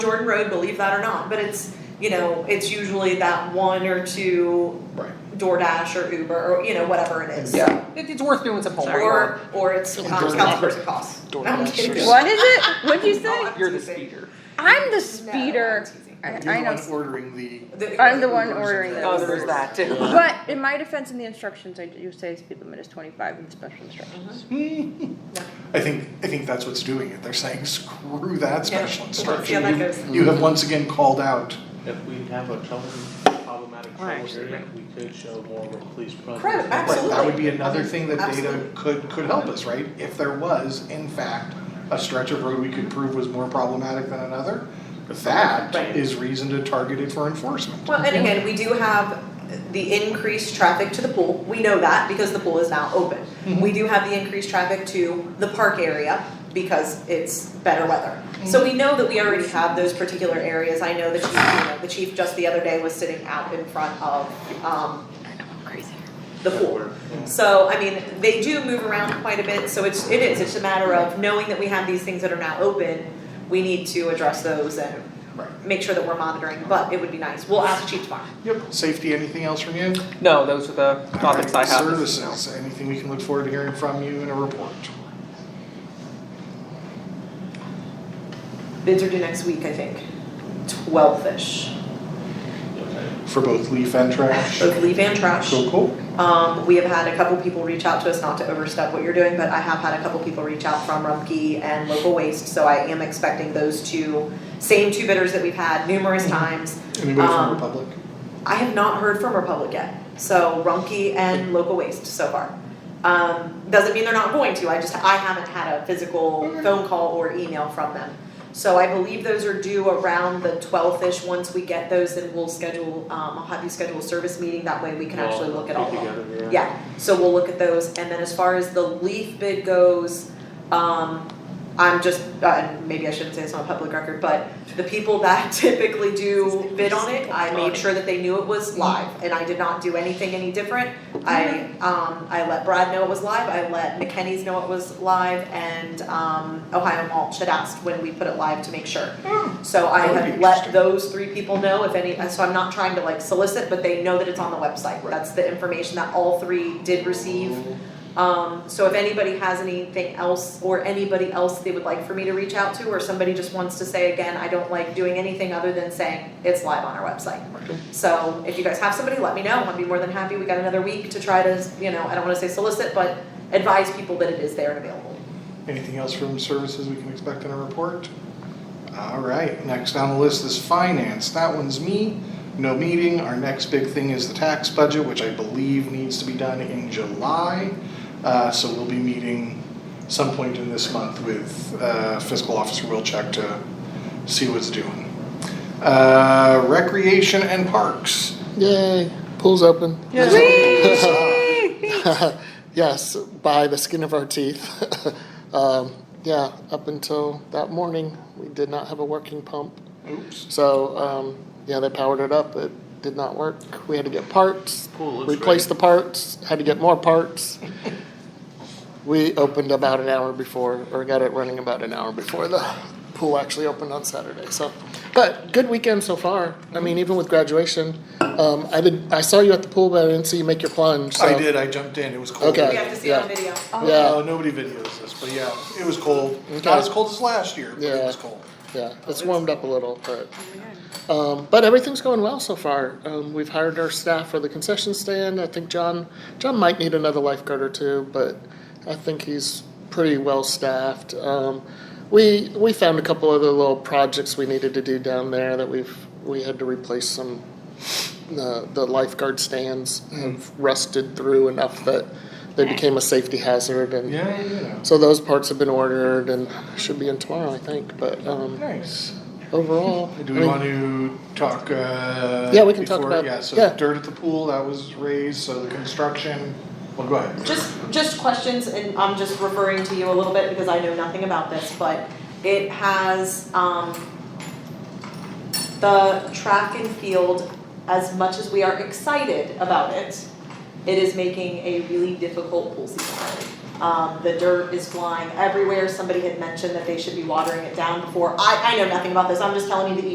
Jordan Road, believe that or not, but it's you know it's usually that one or two Right. DoorDash or Uber or you know whatever it is. Yeah. It, it's worth doing some homework. Or or it's um, DoorDash. Councilperson Cost. No, I'm DoorDash. kidding. What is it? What'd you say? Oh, You're the speaker. I'm the No, speeder. it's easy. I, You're I the know. one ordering the. The- I'm the one ordering Oh, those. there's that too. But in my defense, in the instructions, I do say speed limit is 25 in the special instructions. I think I think that's what's doing it. They're saying screw that Yeah. special Let's see how instruction. that You- goes. You have once again called out. If we have a trouble, problematic Right. trouble area, we could show more of a police presence. Correct, But Right, that would Absolutely. be another thing that data Absolutely. could could help us, right? If there was, in fact, a stretch of road we could prove was more problematic than another, that Right. is reason to target it for enforcement. Well, and again, we do have the increased traffic to the pool. We know that because the pool is now open. We do have the increased traffic to the park area because it's better weather. So we know that we already have those particular areas. I know the chief, you know, the chief just the other day was sitting out in front of um Mm-hmm. the pool. So I mean, they do move around quite a bit, so it's it is, it's a matter of knowing that we have these things that are now open, we need to address those and Right. make sure that we're monitoring, but it would be nice. We'll ask the chief tomorrow. Yep, safety, anything else from you? No, those are the topics I Alright, have. Services, anything we can look forward to hearing from you in a report? Bids are due next week, I think. Twelve-ish For both leaf and trash? of leaf and trash. Cool, cool. Um, we have had a couple people reach out to us, not to overstep what you're doing, but I have had a couple people reach out from Rumpke and Local Waste, so I am expecting those two, same two bidders that we've had numerous times. Anybody Um, from Republic? I have not heard from Republic yet, so Rumpke and Local Waste so far. Um, doesn't mean they're not going to, I just, I haven't had a physical phone call or email from them. So I believe those are due around the twelfth-ish, once we get those, then we'll schedule, um, I'll have you schedule a service meeting, that way we can actually look at all of them. Yeah, so we'll look at those, and then as far as the leaf bid goes, um, I'm just, uh, maybe I shouldn't say it's on public record, but the people that typically do bid on it, I made sure that they knew it was live, and I did not do anything any different. I, um, I let Brad know it was live, I let McKenny's know it was live, and, um, Ohio Mulch had asked when we put it live to make sure. So I Oh. That would have be let interesting. those three people know if any, so I'm not trying to like solicit, but they know that it's on the website. Right. That's the information that all three did receive. Um, so if anybody has anything else or anybody else they would like for me to reach out to, or somebody just wants to say again, I don't like doing anything other than saying it's live on our website. So if you guys have somebody, let me know. I'd be more than happy. We got another week to try to, you know, I don't wanna say solicit, but advise people that it is there and available. Anything else from services we can expect in a report? All right, next on the list is finance. That one's me, no meeting. Our next big thing is the tax budget, which I believe needs to be done in July. Uh, so we'll be meeting some point in this month with uh, fiscal officer Wilczek to see what's doing. Uh, recreation and parks. Yay, pool's open. Whee! yes, by the skin of our teeth. um, yeah, up until that morning, we did not have a working pump. Oops. So, um, yeah, they powered it up. It did not work. We had to get parts, Pool looks replace great. the parts, had to get more parts. we opened about an hour before, or got it running about an hour before the pool actually opened on Saturday. So, but good weekend so far. I mean, even with graduation, um, I did. I saw you at the pool, but I didn't see you make your plunge. So. I did, I jumped in. It was cold. Okay. We have to see it on Yeah. video. Oh. Yeah. No, Uh, nobody videos this, but yeah, it was cold. Okay. Not as cold as last year, but it Yeah. was cold. Yeah, it's warmed up a little, but, um, but everything's going well so far. Um, we've hired our staff for the concession stand. I think John, John might need another lifeguard or two, but I think he's pretty well staffed. Um, we, we found a couple other little projects we needed to do down there that we've, we had to replace some, the, the lifeguard stands have rusted through enough that they became a safety hazard and Yeah, yeah. so those parts have been ordered and should be in tomorrow, I think. But um, Nice. overall, Do we I mean, want to talk? Uh, Yeah, we can talk before- about- Yeah, so yeah. dirt at the pool that was raised, so the construction. Well, go ahead. Just, just questions, and I'm just referring to you a little bit because I know nothing about this, but it has, um, the track and field, as much as we are excited about it, it is making a really difficult pool season. Um, the dirt is flying everywhere. Somebody had mentioned that they should be watering it down before. I, I know nothing about this. I'm just telling you the